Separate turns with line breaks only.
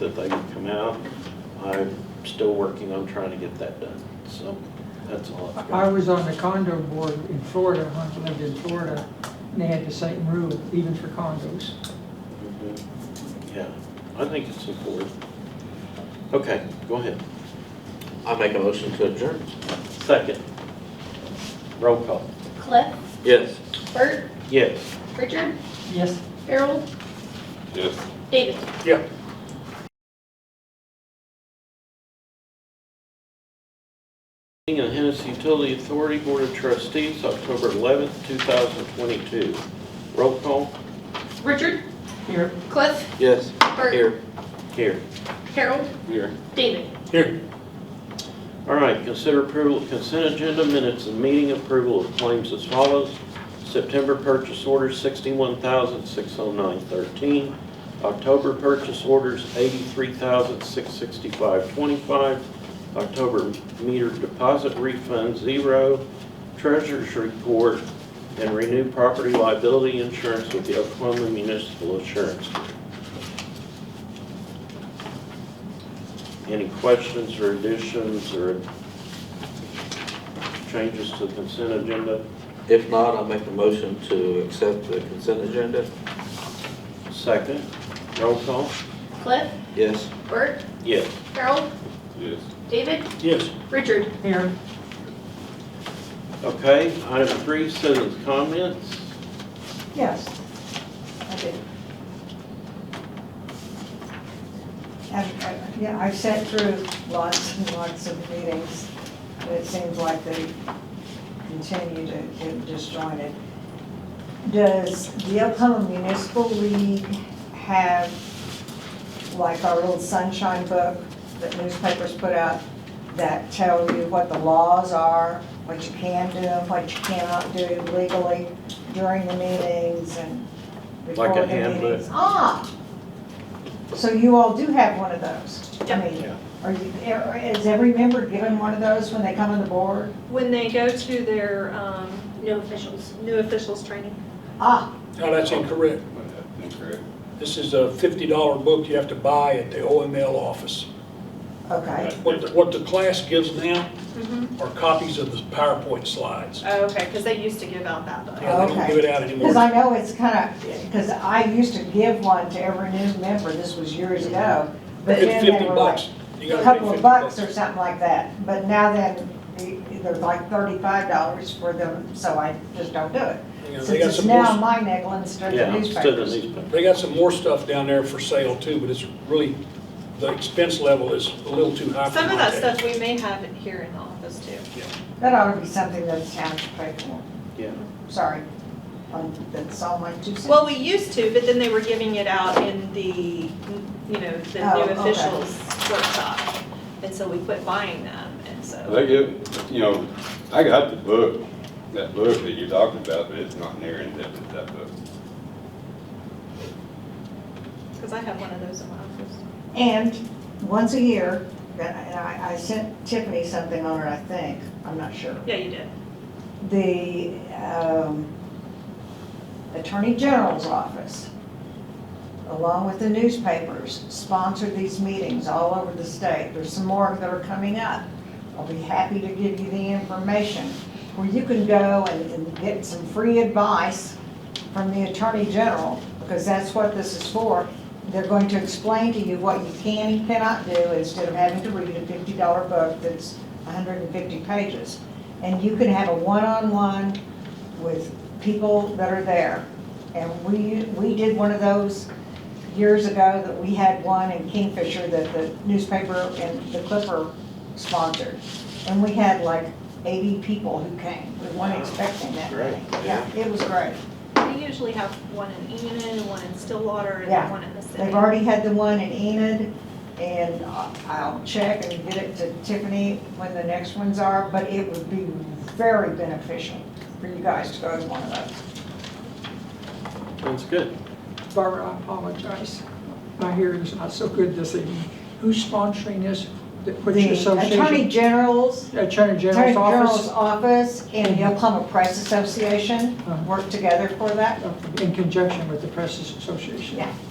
that they can come out. I'm still working on trying to get that done, so that's all I've
I
got.
was on the condo board in Florida, when I lived in Florida, and they had the same rule, even for condos.
Mhm. Yeah, I think it's important. Okay, go ahead.
I make a motion to adjourn.
Second. Roll call.
Cliff,
Yes.
Bert,
Yes.
Richard,
Yes,
Harold,
Yes.
David.
Yeah.
Meeting of Hennessy Utility Authority Board of Trustees, October 11th, 2022. Roll call
Richard,
here.
Cliff,
Yes.
Bert,
Here.
here.
Harold,
Here.
David.
Here.
All right, consider approval of consent agenda minutes and meeting approval of claims as follows. September purchase orders 61,609.13. October purchase orders 83,665.25. October meter deposit refund zero. Treasurer's report and renew property liability insurance with the Oklahoma Municipal Insurance. Group. Any questions or additions or changes to the consent agenda?
If not, I'll make a motion to accept the consent agenda.
Second, roll call?
Cliff,
Yes.
Bert,
Yes.
Harold,
Yes.
David,
Yes.
Richard.
Here,
Okay, item three, citizens' comments.
Yes. I did. And, uh, yeah, I've sat through lots and lots of meetings, but it seems like they continue to get disjointed. Does the Oklahoma Municipal League have, like our little sunshine book that newspapers put out, that tell you what the laws are, what you can do, and what you cannot do legally during the meetings and before
Like a
the
handbook.
meetings? Ah, so you all do have one of those? I
Yeah.
mean, Are you, are- is every member given one of those when they come on the board?
When they go to their um,
No officials.
new officials training,
Ah,
No, that's incorrect.
Incorrect.
This is a $50 book you have to buy at the OML office.
okay,
What, the- what the class gives now
Mm-hmm.
are copies of the PowerPoint slides.
Oh, okay, because they used to give out that book.
Yeah, They don't give it out
because I
anymore.
know it's kind of, because I used to give one to every new member, this was years ago. But
It's
then they
50
were like
bucks. You
a
gotta pay
couple of
50
bucks or something like that, but now then, e- they're like thirty-five dollars for them, so I just don't do it.
You know, They
Since
got
it's
some more,
now
s-
my nickel instead
Yeah,
of
instead of
newspapers.
newspaper.
they got some more stuff down there for sale too, but it's really, the expense level is a little too high for
Some
my
of that
taste.
stuff we may have in here in the office too.
That ought to be something that the town should pay for,
Yeah.
sorry, Um, that's all my two cents.
Well, we used to, but then they were giving it out in the, you know, the
Oh,
new
okay.
officials workshop. And so we quit buying them, and so,
They give, you know, I got the book, that book that you're talking about, but it's not near in depth as that book.
because I have one of those in my office.
And once a year, that- and I, I sent Tiffany something on it, I think, I'm not sure.
Yeah, you did.
The um, Attorney General's office, along with the newspapers, sponsor these meetings all over the state. There's some more that are coming up. I'll be happy to give you the information where you can go and and get some free advice from the Attorney General, because that's what this is for. They're going to explain to you what you can and cannot do instead of having to read a fifty-dollar book that's hundred and fifty pages. And you can have a one-on-one with people that are there. And we, we did one of those years ago that we had one in Kingfisher that the newspaper and the Clipper sponsored. And we had like eighty people who came. We weren't expecting that many.
Great,
Yeah, it was great.
We usually have one in Enid, one in Stillwater, and
Yeah.
then one in the city.
They've already had the one in Enid, and I- I'll check and get it to Tiffany when the next ones are, but it would be very beneficial for you guys to go to one of those.
Sounds good.
Barbara, I apologize. My hearing's not so good this evening. Who's sponsoring this? The- What's your
The Attorney
association?
General's,
Attorney
Attorney
General's
General's
Office?
office and the Oklahoma Press Association
Uh-huh.
work together for that.
In conjunction with the Press Association?
Yeah.